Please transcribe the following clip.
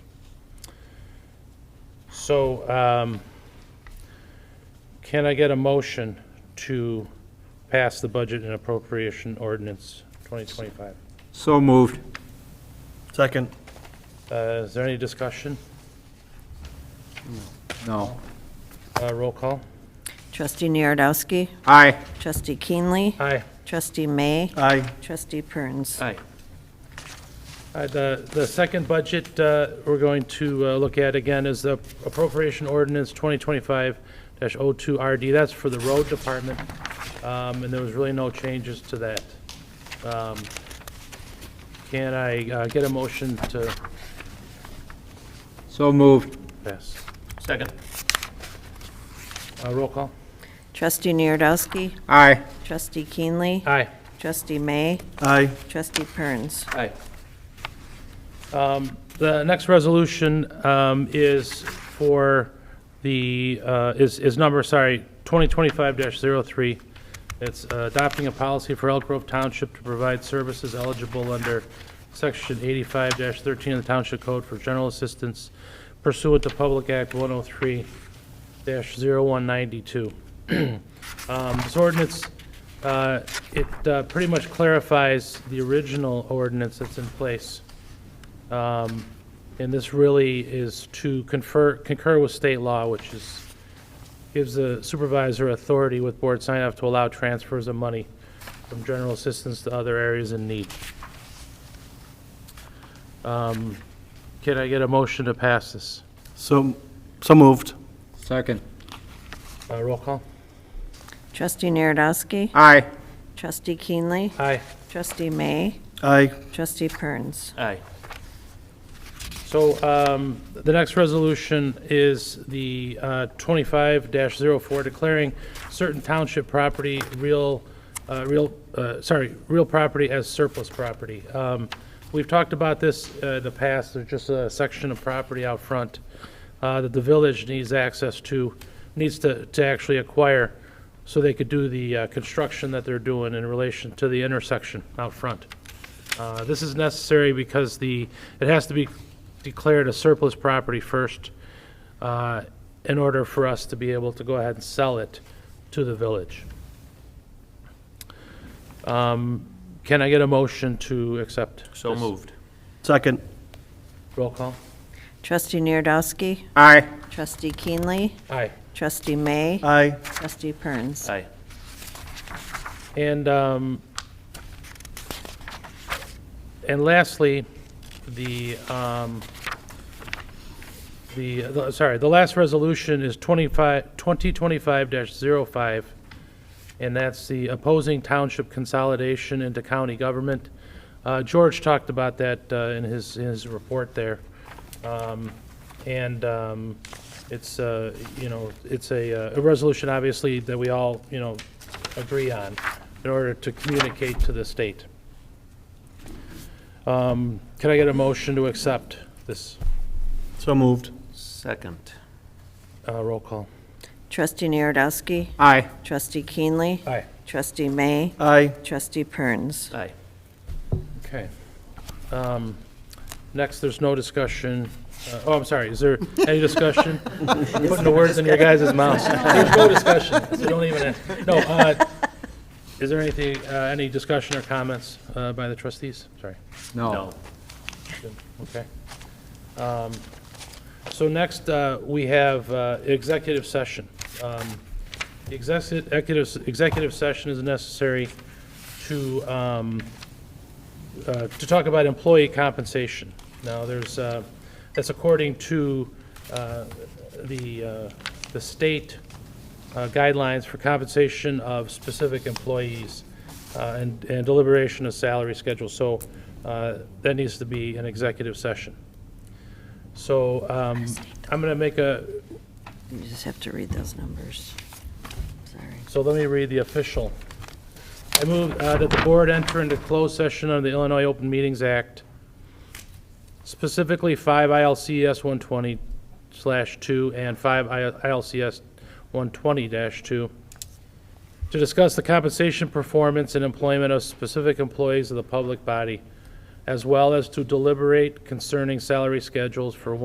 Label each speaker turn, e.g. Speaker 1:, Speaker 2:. Speaker 1: So, um, can I get a motion to pass the budget and appropriation ordinance 2025?
Speaker 2: So moved.
Speaker 3: Second.
Speaker 1: Uh, Is there any discussion?
Speaker 2: No.
Speaker 1: Uh, Roll call?
Speaker 4: Trustee Narodowski,
Speaker 2: Aye.
Speaker 4: Trustee Keenley,
Speaker 1: Aye.
Speaker 4: Trustee May,
Speaker 3: Aye.
Speaker 4: Trustee Perns.
Speaker 2: Aye.
Speaker 1: Uh, The the second budget uh, we're going to uh, look at again is the appropriation ordinance 2025-02RD. That's for the road department, um, and there was really no changes to that. Um, Can I uh, get a motion to
Speaker 2: So moved.
Speaker 1: pass?
Speaker 3: Second.
Speaker 1: Uh, Roll call?
Speaker 4: Trustee Narodowski,
Speaker 2: Aye.
Speaker 4: Trustee Keenley,
Speaker 1: Aye.
Speaker 4: Trustee May,
Speaker 3: Aye.
Speaker 4: Trustee Perns.
Speaker 2: Aye.
Speaker 1: The next resolution um, is for the, uh, is is number, sorry, 2025-03. It's uh, adopting a policy for Elk Grove Township to provide services eligible under Section 85-13 of the Township Code for general assistance pursuant to Public Act 103-0192. Um, This ordinance, uh, it uh, pretty much clarifies the original ordinance that's in place. Um, And this really is to confer, concur with state law, which is, gives the supervisor authority with board sign-off to allow transfers of money from general assistance to other areas in need. Um, Can I get a motion to pass this?
Speaker 3: So, so moved.
Speaker 2: Second.
Speaker 1: Uh, Roll call?
Speaker 4: Trustee Narodowski,
Speaker 2: Aye.
Speaker 4: Trustee Keenley,
Speaker 1: Aye.
Speaker 4: Trustee May,
Speaker 3: Aye.
Speaker 4: Trustee Perns.
Speaker 2: Aye.
Speaker 1: So um, the next resolution is the uh, 25-04, declaring certain township property real, uh, real, uh, sorry, real property as surplus property. Um, We've talked about this uh, in the past, there's just a section of property out front uh, that the village needs access to, needs to to actually acquire, so they could do the uh, construction that they're doing in relation to the intersection out front. Uh, This is necessary because the, it has to be declared a surplus property first uh, in order for us to be able to go ahead and sell it to the village. Um, Can I get a motion to accept?
Speaker 2: So moved.
Speaker 3: Second.
Speaker 1: Roll call?
Speaker 4: Trustee Narodowski,
Speaker 2: Aye.
Speaker 4: Trustee Keenley,
Speaker 1: Aye.
Speaker 4: Trustee May,
Speaker 3: Aye.
Speaker 4: Trustee Perns.
Speaker 2: Aye.
Speaker 1: And, um, and lastly, the, um, the, the- sorry, the last resolution is 25, 2025-05, and that's the opposing township consolidation into county government. Uh, George talked about that uh, in his, in his report there. Um, And um, it's, uh, you know, it's a, uh, a resolution, obviously, that we all, you know, agree on in order to communicate to the state. Um, Can I get a motion to accept this
Speaker 3: So moved.
Speaker 2: Second.
Speaker 1: uh, roll call?
Speaker 4: Trustee Narodowski,
Speaker 2: Aye.
Speaker 4: Trustee Keenley,
Speaker 1: Aye.
Speaker 4: Trustee May,
Speaker 3: Aye.
Speaker 4: Trustee Perns.
Speaker 2: Aye.
Speaker 1: Okay. Um, Next, there's no discussion. uh, Oh, I'm sorry, is there any discussion? I'm Putting the words in your guys' mouths. There's no discussion, so don't even, no. uh, Is there anything, uh, any discussion or comments uh, by the trustees? Sorry.
Speaker 2: No.
Speaker 1: Okay. Um, So next, uh, we have uh, executive session. Um, the execu- Executive, executive session is necessary to, um, uh, to talk about employee compensation. Now, there's, uh, that's according to uh, the, uh, the state uh, guidelines for compensation of specific employees uh, and and deliberation of salary schedule. So uh, that needs to be an executive session. So um, I'm going to make a,
Speaker 4: You just have to read those numbers. Sorry.
Speaker 1: so let me read the official. I move uh, that the board enter into closed session under the Illinois Open Meetings Act, specifically 5 ILCS 120/2 and 5 ILCS 120-2, to discuss the compensation, performance, and employment of specific employees of the public body, as well as to deliberate concerning salary schedules for